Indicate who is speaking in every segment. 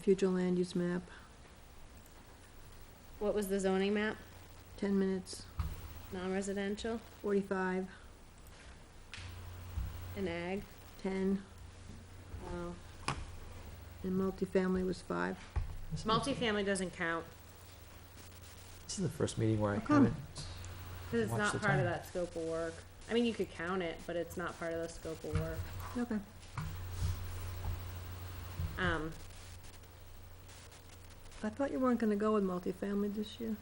Speaker 1: future land use map,
Speaker 2: What was the zoning map?
Speaker 1: ten minutes,
Speaker 2: Non-residential
Speaker 1: forty-five,
Speaker 2: and ag?
Speaker 1: ten,
Speaker 2: Wow.
Speaker 1: and multifamily was five.
Speaker 3: This is the-
Speaker 2: Multifamily doesn't count,
Speaker 3: This is the first meeting where I
Speaker 1: How come?
Speaker 3: haven't.
Speaker 2: cause it's
Speaker 3: Watch the
Speaker 2: not part
Speaker 3: time.
Speaker 2: of that scope of work. I mean, you could count it, but it's not part of the scope of work.
Speaker 1: Okay.
Speaker 2: Um,
Speaker 1: I thought you weren't gonna go with multifamily this year.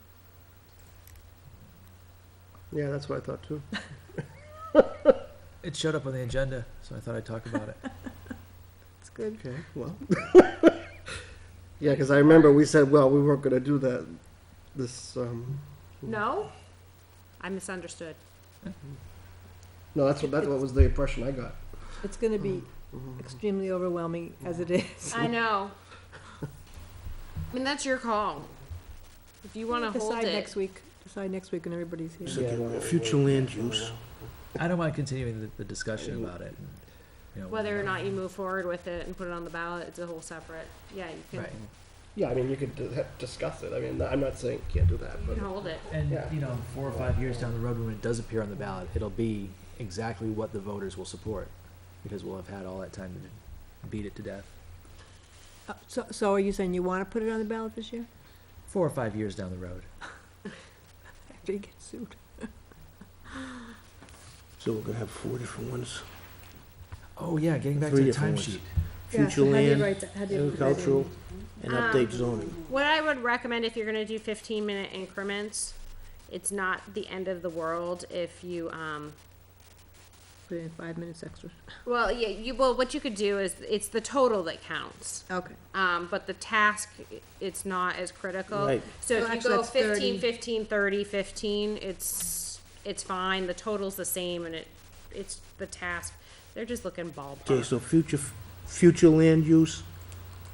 Speaker 4: Yeah, that's what I thought too.
Speaker 3: It showed up on the agenda, so I thought I'd talk about it.
Speaker 1: It's good.
Speaker 4: Okay, well. Yeah, because I remember we said, well, we weren't gonna do that, this, um,
Speaker 2: no? I misunderstood.
Speaker 4: no, that's what, that's what was the impression I got. Mm-hmm.
Speaker 1: It's gonna be extremely overwhelming as it is.
Speaker 2: I know. I mean, that's your call. If you wanna hold
Speaker 1: Decide
Speaker 2: it,
Speaker 1: next week, decide next week when everybody's here.
Speaker 5: Except Future land use.
Speaker 3: I don't mind continuing the, the discussion about it. and, you know,
Speaker 2: whether or not you move forward with it and put it on the ballot, it's a whole separate, yeah, you can,
Speaker 3: Right.
Speaker 4: Yeah, I mean, you could do that- discuss it. I mean, I'm not saying you can't do that,
Speaker 2: you
Speaker 4: but
Speaker 2: can hold it.
Speaker 3: And,
Speaker 4: Yeah.
Speaker 3: you know, four or five years down the road, when it does appear on the ballot, it'll be exactly what the voters will support, because we'll have had all that time to beat it to death.
Speaker 1: Uh, So, so are you saying you wanna put it on the ballot this year?
Speaker 3: Four or five years down the road.
Speaker 1: After you get sued?
Speaker 5: So we're gonna have four different ones.
Speaker 3: Oh, yeah, getting back to
Speaker 5: Three
Speaker 3: the
Speaker 5: different ones.
Speaker 3: timesheet.
Speaker 1: Yeah,
Speaker 5: Future
Speaker 1: so how do you
Speaker 5: land,
Speaker 1: write that? How do you write that in?
Speaker 5: agricultural, and
Speaker 4: Um,
Speaker 5: update zoning.
Speaker 2: What I would recommend if you're gonna do fifteen minute increments, it's not the end of the world if you, um,
Speaker 1: Put in five minutes extra.
Speaker 2: well, yeah, you, well, what you could do is, it's the total that counts.
Speaker 1: Okay.
Speaker 2: Um, but the task, i- it's not as critical.
Speaker 5: Right.
Speaker 2: So
Speaker 1: So
Speaker 2: if you
Speaker 1: actually
Speaker 2: go
Speaker 1: that's 30.
Speaker 2: fifteen, fifteen, thirty, fifteen, it's, it's fine, the total's the same and it, it's the task. They're just looking
Speaker 5: Okay,
Speaker 2: ballpark.
Speaker 5: so future, future land use,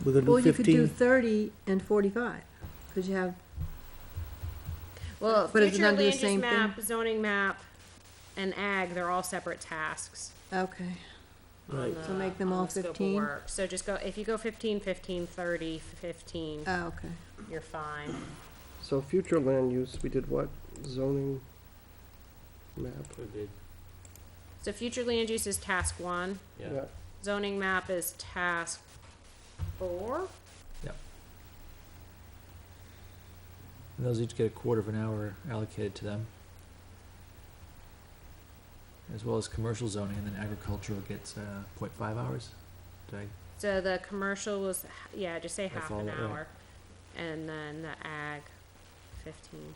Speaker 5: we're gonna
Speaker 1: Well,
Speaker 5: do
Speaker 1: you could do
Speaker 5: fifteen?
Speaker 1: thirty and forty-five, because you have,
Speaker 2: Well,
Speaker 1: But is it
Speaker 2: future
Speaker 1: under
Speaker 2: land
Speaker 1: the
Speaker 2: use
Speaker 1: same thing?
Speaker 2: map, zoning map, and ag, they're all separate tasks.
Speaker 1: okay,
Speaker 5: Right.
Speaker 2: on
Speaker 1: So
Speaker 2: the-
Speaker 1: make them
Speaker 2: on
Speaker 1: all
Speaker 2: the scope of
Speaker 1: 15?
Speaker 2: work. So just go, if you go fifteen, fifteen, thirty, fifteen,
Speaker 1: oh, okay.
Speaker 2: you're fine.
Speaker 4: so future land use, we did what? Zoning map?
Speaker 2: So future land use is task one,
Speaker 4: Yeah.
Speaker 2: zoning map is task four?
Speaker 3: And those each get a quarter of an hour allocated to them. As well as commercial zoning, and then agricultural gets, uh, point five hours. Did I
Speaker 2: So the commercial was, h- yeah, just say
Speaker 3: I
Speaker 2: half
Speaker 3: follow
Speaker 2: an
Speaker 3: that, yeah.
Speaker 2: hour, and then the ag, fifteen.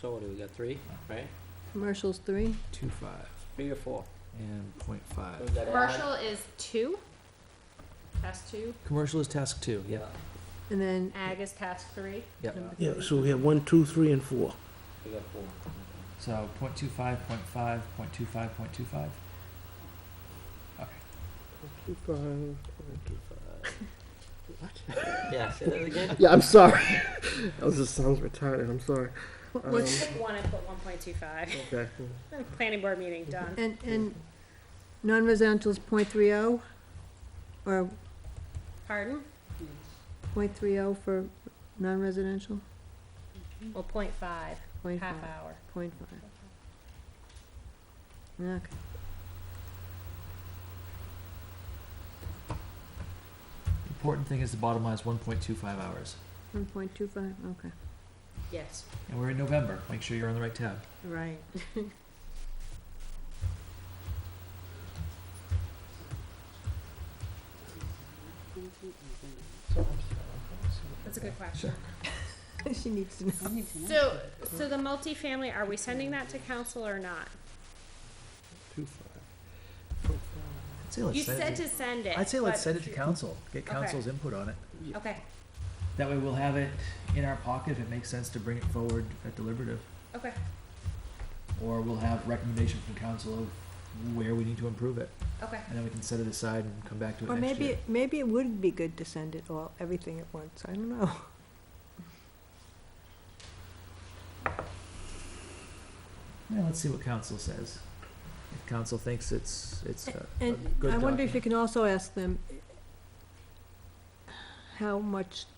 Speaker 6: So what do we got, three, right?
Speaker 1: Commercials three,
Speaker 3: Two five
Speaker 6: Three or four?
Speaker 3: and point
Speaker 6: So
Speaker 3: five.
Speaker 6: we got ag-
Speaker 2: Commercial is two, task two,
Speaker 3: Commercial is task two, yeah.
Speaker 1: and then
Speaker 2: ag is task three.
Speaker 3: Yeah.
Speaker 1: number
Speaker 5: Yeah,
Speaker 1: three.
Speaker 5: so we have one, two, three, and four.
Speaker 6: We got four.
Speaker 3: So point two five, point five, point two five, point two five. Okay.
Speaker 4: Two five, two five.
Speaker 6: Yeah, say that again.
Speaker 4: Yeah, I'm sorry. That was, just sounds retarded, I'm sorry.
Speaker 1: What-
Speaker 4: Um,
Speaker 1: What's,
Speaker 2: Pick one and put one point two five,
Speaker 4: Okay.
Speaker 2: planning board meeting, done.
Speaker 1: and, and non-residential is point three oh, or
Speaker 2: Pardon?
Speaker 1: point three oh for non-residential?
Speaker 2: Well, point five,
Speaker 1: Point
Speaker 2: half
Speaker 1: five.
Speaker 2: hour.
Speaker 1: Point five. Okay.
Speaker 3: Important thing is the bottom line is one point two five hours.
Speaker 1: One point two five, okay.
Speaker 2: Yes.
Speaker 3: And we're in November. Make sure you're on the right tab.
Speaker 1: Right.
Speaker 2: That's a good question.
Speaker 1: She needs to know.
Speaker 2: So, so the multifamily, are we sending that to council or not?
Speaker 4: Two five.
Speaker 3: I'd say let's
Speaker 2: You
Speaker 3: send
Speaker 2: said
Speaker 3: it
Speaker 2: to send it.
Speaker 3: I'd say
Speaker 2: but-
Speaker 3: let's send it to council. Get
Speaker 2: Okay.
Speaker 3: council's input on it.
Speaker 2: Okay,
Speaker 3: That way we'll have it in our pocket if it makes sense to bring it forward at deliberative.
Speaker 2: okay.
Speaker 3: Or we'll have recommendation from council of where we need to improve it.
Speaker 2: Okay.
Speaker 3: And then we can set it aside and come back to it
Speaker 1: Or
Speaker 3: next year.
Speaker 1: maybe, maybe it would be good to send it all, everything at once, I don't know.
Speaker 3: Yeah, let's see what council says. If council thinks it's, it's a, a
Speaker 1: And
Speaker 3: good
Speaker 1: I wonder if you
Speaker 3: document.
Speaker 1: can also ask them, how much